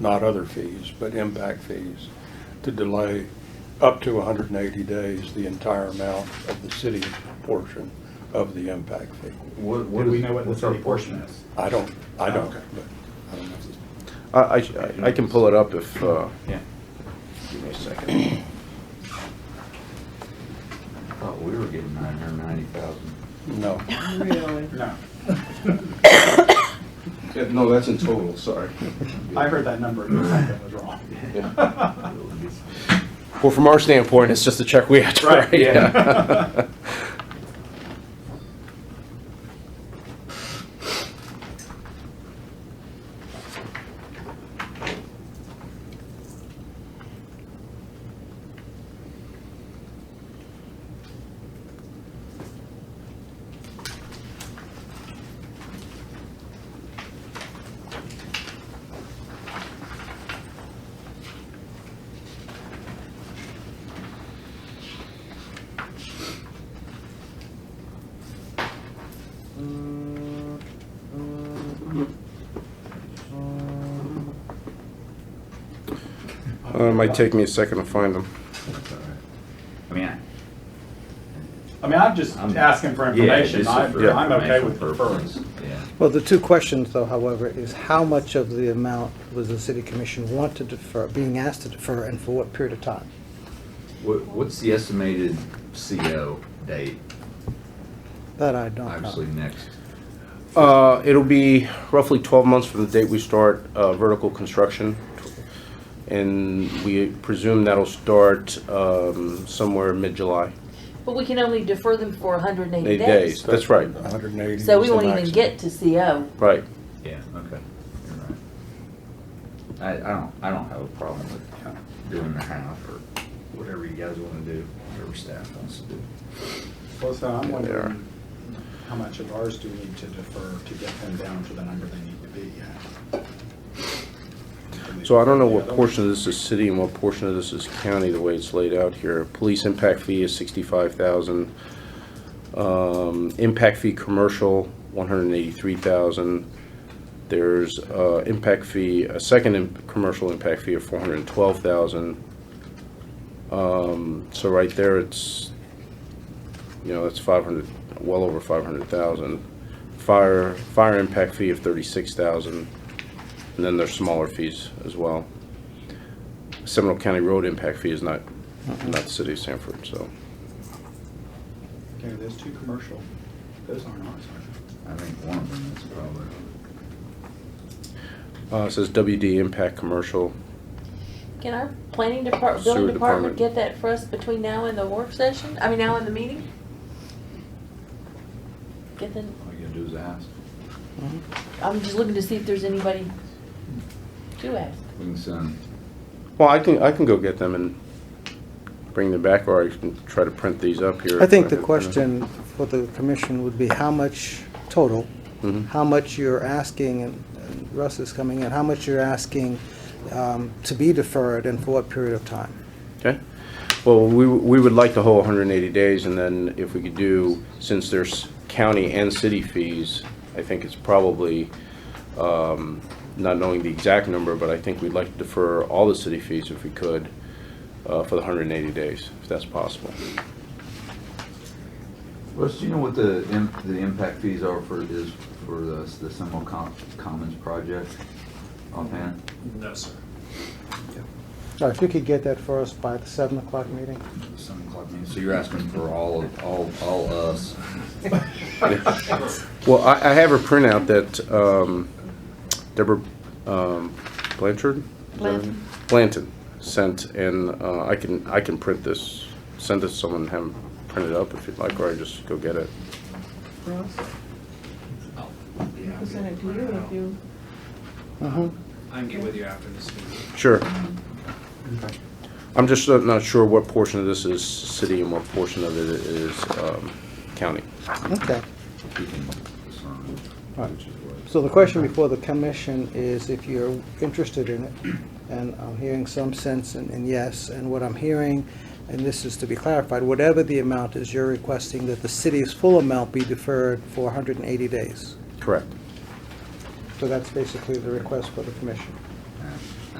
not other fees, but impact fees, to delay up to 180 days the entire amount of the city portion of the impact fee. What, Do what we is, know what the what's our city portion portion? is? I don't, I don't, Okay. but I don't know. if this- I, I- I can pull it up if, uh, Yeah. give me a second. I thought we were getting nine hundred and ninety thousand. No, Really? No, Yeah, No, that's in total, sorry. I heard that number, but something was wrong. Well, from our standpoint, it's just a check we have to Right, write. yeah. Uh, It might take me a second to find them. That's all right. I mean, I- I mean, I'm just I'm- asking for yeah, this is information. I'm, for I'm okay with informational referring. purposes. Yeah. Well, the two questions, though, however, is how much of the amount was the city commission want to defer, being asked to defer, and for what period of time? What, what's the estimated CO date, That I Oh, don't obviously know. next? Uh, It'll be roughly 12 months from the date we start uh, vertical construction. And we presume that'll start um, somewhere mid-July. But we can only defer them for 180 Eight days, days. that's right, 180 is So we the won't even maximum. get to CO. right. Yeah, okay. You're right. I, I don't, I don't have a problem with doing the half or whatever you guys wanna do, whatever staff wants to do. Well, so I'm Yeah, they are. wondering, how much of ours do we need to defer to get them down to the number they need to be at? So I don't know what portion of this is city and what portion of this is county, the way it's laid out here. Police impact fee is 65,000. Um, Impact fee commercial, 183,000. There's uh, impact fee, a second im- commercial impact fee of 412,000. Um, So right there, it's, you know, that's 500, well over 500,000. Fire, fire impact fee of 36,000. And then there's smaller fees as well. Seminole County Road impact fee is not, not the city of Sanford, so. Okay, those two commercial, those aren't ours, are I think one of them is probably, Uh, it says WD impact commercial. Can our planning department, Sewer building department department. get that for us between now and the work session? I mean, now and the meeting? Get the, all you gotta do is ask. I'm just looking to see if there's anybody to ask. We can send, Well, I can, I can go get them and bring them back, or I can try to print these up here. I think the if have question for the commission would be how much total, Mhm. how much you're asking, and and Russ is coming in, how much you're asking um, to be deferred and for what period of time? Okay. Well, we, we would like the whole 180 days, and then if we could do, since there's county and city fees, I think it's probably, um, not knowing the exact number, but I think we'd like to defer all the city fees if we could uh, for the 180 days, if that's possible. Russ, do you know what the, im- the impact fees are for, is for the, the Seminole Com- Commons project offhand? No, sir. So if you could get that for us by the 7 o'clock meeting? Seven o'clock meeting, so you're asking for all of, all, all us? Well, I, I have a printout that um, Deborah um, Blanchard? Blanton. Blanton sent, and uh, I can, I can print this, send it to someone, and have them print it up if you'd like, or I just go get it. Uh-huh. I can get with you after this meeting. Sure. I'm just not sure what portion of this is city and what portion of it is um, county. Okay. You can sign, which is what- So the question before the commission is if you're interested in it, and I'm hearing some sense and, and yes, and what I'm hearing, and this is to be clarified, whatever the amount is, you're requesting that the city's full amount be deferred for 180 days. Correct. So that's basically the request for the commission.